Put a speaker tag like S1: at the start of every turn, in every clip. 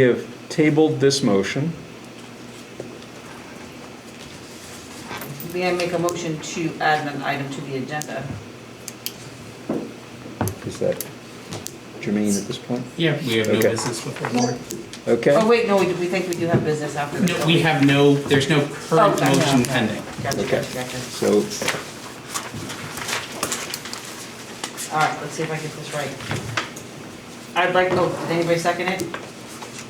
S1: We have tabled this motion.
S2: May I make a motion to add an item to the agenda?
S1: Is that germane at this point?
S3: Yeah, we have no
S1: Okay.
S3: business with the board.
S1: Okay,
S2: Oh, wait, no, we we think we do have business after. this,
S3: No,
S2: don't
S3: We have no, there's no current
S2: Oh, gotcha,
S3: motion
S2: okay.
S3: pending.
S2: Gotcha,
S1: Okay.
S2: gotcha, gotcha.
S1: so
S2: All right, let's see if I get this right. I'd like, oh, did anybody second it?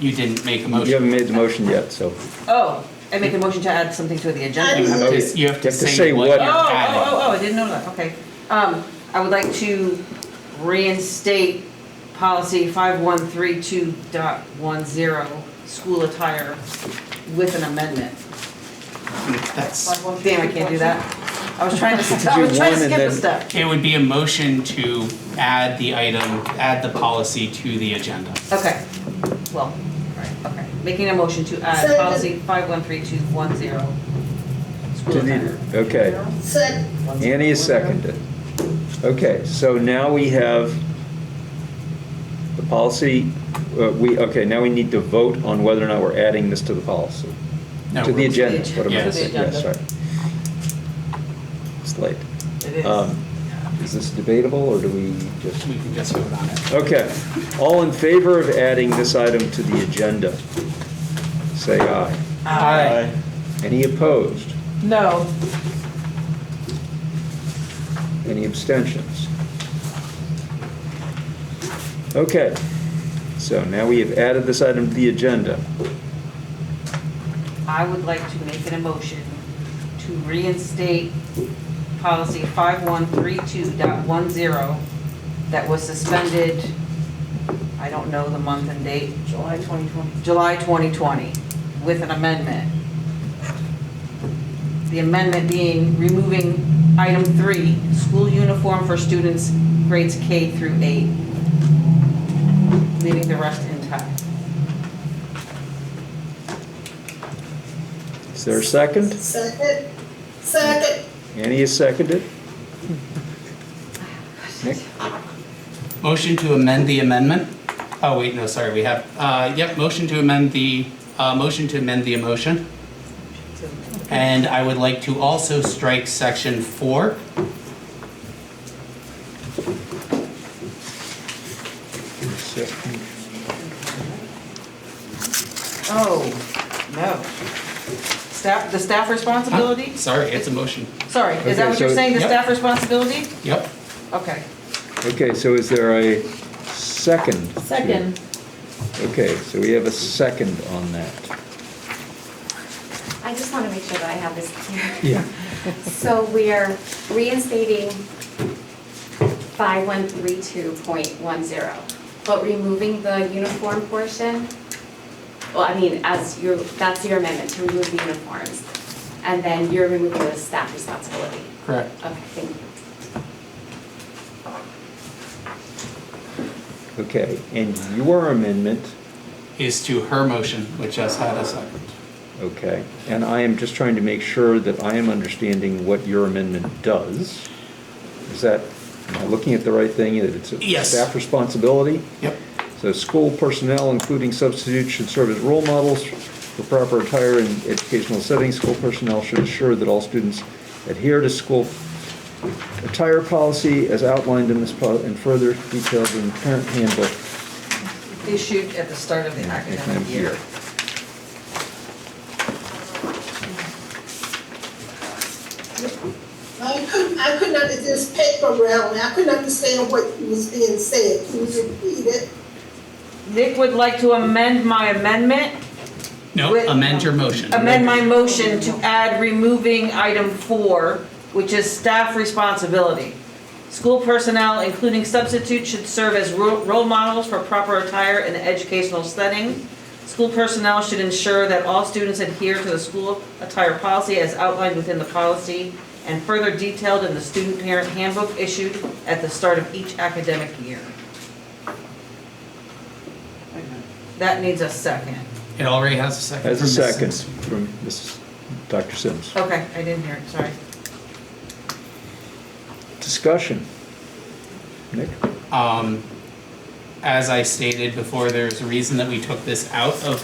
S3: You didn't make a
S1: you
S3: motion.
S1: haven't made the motion yet, so.
S2: Oh, I make a motion to add something to the
S3: You
S2: agenda.
S3: have to, you have to say what
S2: Oh,
S3: you're
S1: yeah,
S2: oh,
S3: adding.
S2: oh, oh, I didn't know that, okay. Um, I would like to reinstate policy 5132.10, school attire, with an amendment.
S3: That's,
S2: Damn, I can't do that. I was trying to, I
S1: do
S2: was
S1: one
S2: trying to
S1: and
S2: skip a
S1: then-
S2: step.
S3: it would be a motion to add the item, add the policy to the agenda.
S2: Okay, well, alright, okay. Making a motion to add
S4: So-
S2: policy five one three two one zero. School
S1: Did
S2: attire.
S1: you- Okay,
S4: Second.
S1: Annie has seconded. Okay, so now we have the policy, uh, we, okay, now we need to vote on whether or not we're adding this to the policy.
S3: No,
S1: To the
S3: we're-
S1: agenda, what am I
S3: Yeah.
S1: saying?
S2: To the
S1: Yeah,
S2: agenda.
S1: sorry. It's late.
S2: It is.
S1: Um, Is this debatable, or do we just?
S3: We can just vote on it.
S1: Okay, all in favor of adding this item to the agenda? Say aye.
S3: Aye.
S1: Any opposed?
S2: No.
S1: Any abstentions? Okay, so now we have added this item to the agenda.
S2: I would like to make an emotion to reinstate policy five one three two dot one zero that was suspended, I don't know the month and date. July twenty twenty. July twenty twenty, with an amendment. The amendment being removing item three, school uniform for students grades K through eight, leaving the rest intact.
S1: Is there a second?
S4: Second. Second.
S1: Annie is seconded? Nick?
S3: Motion to amend the amendment? Oh, wait, no, sorry, we have, uh, yep, motion to amend the, uh, motion to amend the motion. And I would like to also strike section four.
S2: Oh, no. Staff, the staff
S3: Huh?
S2: responsibility?
S3: Sorry, it's a motion.
S2: Sorry, is that
S1: Okay,
S2: what you're
S1: so-
S2: saying, the
S3: Yep.
S2: staff responsibility?
S3: Yep.
S2: Okay.
S1: Okay, so is there a second? to-
S5: Second.
S1: Okay, so we have a second on that.
S5: I just want to make sure that I have this clear.
S1: Yeah.
S5: So we are reinstating 5132.10, but removing the uniform portion? Well, I mean, as your, that's your amendment, to remove the uniforms. And then you're removing the staff responsibility.
S3: Correct.
S5: Okay, thank you.
S1: Okay, and your amendment,
S3: Is to her motion, which has had a second.
S1: okay, and I am just trying to make sure that I am understanding what your amendment does. Is that, am I looking at the right thing, that it's a
S3: Yes.
S1: staff responsibility?
S3: Yep.
S1: So school personnel, including substitutes, should serve as role models for proper attire in educational settings. School personnel should ensure that all students adhere to school attire policy as outlined in this, pol- and further detailed in the parent handbook
S2: Issued at the start of the
S1: if I'm
S2: academic year.
S1: here.
S4: I couldn't, I couldn't understand this paper round, I couldn't understand what was being said. Can you repeat it?
S2: Nick would like to amend my amendment,
S3: No,
S2: With-
S3: amend your motion.
S2: amend my motion to add removing item four, which is staff responsibility. School personnel, including substitutes, should serve as ro- role models for proper attire in an educational setting. School personnel should ensure that all students adhere to the school attire policy as outlined within the policy and further detailed in the student parent handbook issued at the start of each academic year. That needs a second.
S3: It already has a second.
S1: As a
S3: from Mrs.
S1: second from Mrs. Dr. Sims.
S2: Okay, I didn't hear it, sorry.
S1: Discussion. Nick?
S3: Um, as I stated before, there's a reason that we took this out of